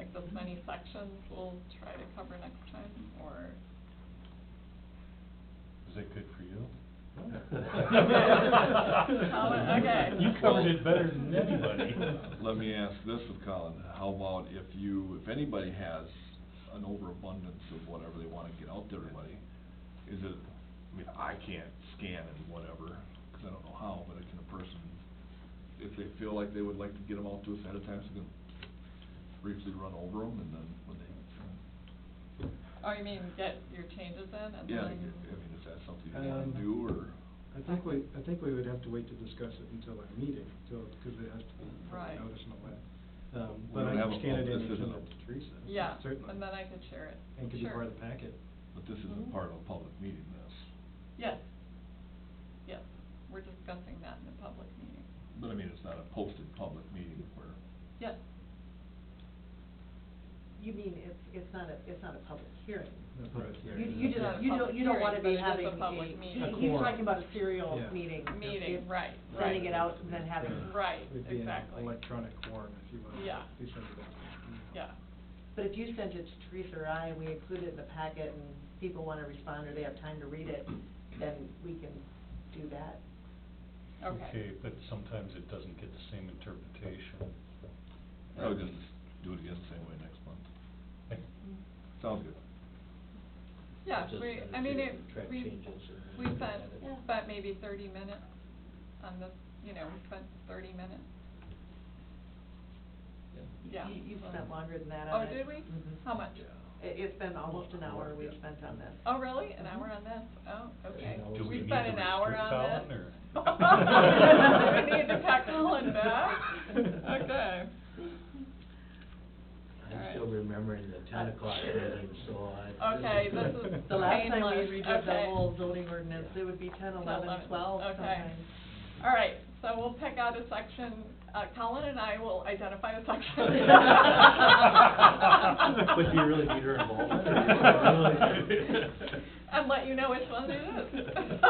it's as many sections, we'll try to cover next time, or, Is that good for you? okay. You covered it better than anybody. Let me ask this of Colin, how about if you, if anybody has an overabundance of whatever they wanna get out to everybody, is it, I mean, I can't scan and whatever, 'cause I don't know how, but can a person, if they feel like they would like to get them out to us ahead of time, so they can briefly run over them and then when they, oh, you mean get your changes in and yeah, I then? mean, is that something you wanna Um, do or? I think we, I think we would have to wait to discuss it until our meeting, till, because it has to be Right. public notice and all that. Um, We but I don't have can a scan it public- in this and send isn't it a- to Teresa, Yeah, certainly. and then I could share it. And could be Sure. part of the packet. But this isn't Mhm. part of a public meeting, this, Yes, yes, we're discussing that in the public meeting. but I mean, it's not a posted public meeting where Yes, You mean, it's, it's not a, it's not a public hearing? Not part of the You, hearing, you yeah. not don't, a you public don't, you don't wanna hearing, but be it having is a a, public he- meeting. A he's quorum. talking about a serial Yeah. meeting. meeting, If right, right. Sending it out and then having. Right, Would be an exactly. electronic form, if you will. Yeah. If you send it out. Yeah, But if you sent it to Teresa or I, and we include it in the packet, and people wanna respond, or they have time to read it, then we can do that. okay. but sometimes it doesn't get the same interpretation. I would just do it again the same way next month. Mm-hmm. Sounds good. Yeah, Just we, send I it mean, to it, track we, changes and we then spent, edit. Yeah. spent maybe thirty minutes on this, you know, we spent thirty minutes. Yeah. Yeah. You, you've spent longer than that Oh, on it. did we? Mhm. How much? It, it's been almost an hour we've Yeah. spent on this. Oh, really? An Mhm. hour on this? Oh, okay. Do we We need spent to an hour restrict on that this? one, We need to pack Colin back? Okay. I'm still remembering the ten o'clock meeting, so I. Uh, Okay, this is The last painless, time okay. we redid the whole zoning ordinance, it would be ten, eleven, 11, twelve okay. sometimes. All right, so we'll pick out a section, uh, Colin and I will identify a section. But do you really need her involved? And let you know which one it is.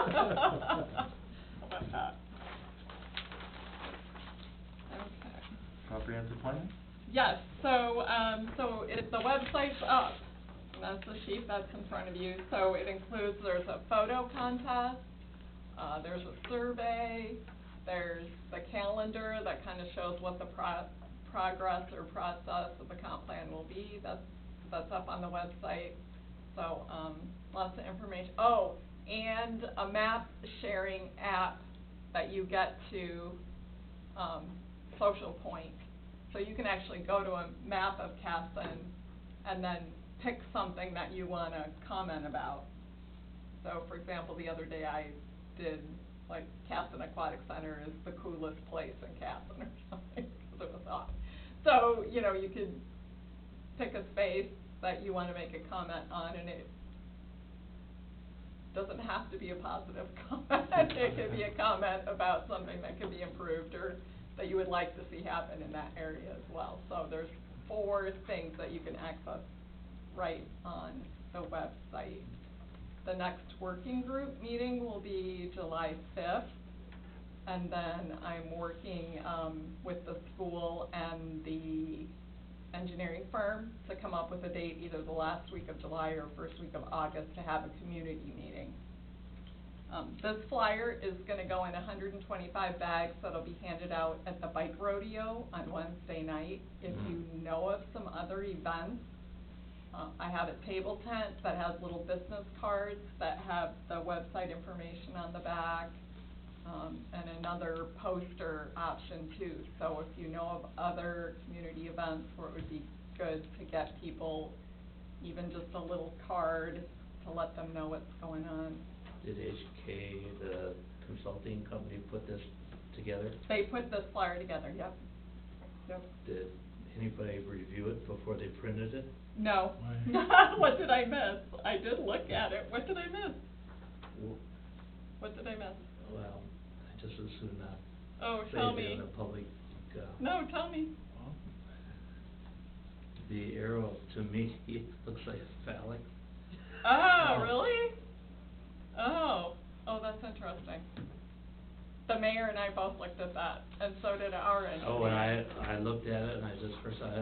Okay. Comprehensive plan? Yes, so, um, so it, the website's up, and that's the sheet that's in front of you, so it includes, there's a photo contest, uh, there's a survey, there's the calendar that kind of shows what the pro- progress or process of the comp plan will be, that's, that's up on the website, so, um, lots of information, oh, and a map sharing app that you get to, um, Social Point, so you can actually go to a map of Casson and then pick something that you want to comment about. So for example, the other day I did, like, Casson Aquatic Center is the coolest place in Casson or something, 'cause it was off. So, you know, you could pick a space that you want to make a comment on and it doesn't have to be a positive comment. It could be a comment about something that could be improved or that you would like to see happen in that area as well. So there's four things that you can access right on the website. The next working group meeting will be July fifth. And then I'm working, um, with the school and the engineering firm to come up with a date either the last week of July or first week of August to have a community meeting. Um, this flyer is gonna go in hundred and twenty-five bags that'll be handed out at the bike rodeo on Wednesday night. If you know of some other events, uh, I have a table tent that has little business cards that have the website information on the back, um, and another poster option too. So if you know of other community events where it would be good to get people even just a little card to let them know what's going on. Did HK, the consulting company, put this together? They put this flyer together, yep. Yep. Did anybody review it before they printed it? No. Why? What did I miss? I did look at it. What did I miss? W- What did I miss? Well, I just assume not. Oh, Say tell it me. in a public, uh. No, tell me. The arrow, to me, looks like a phallic. Oh, really? Oh, oh, that's interesting. The mayor Oh, and I both looked at that, and so did our engineer. Oh, and I, I looked at it and I just, first I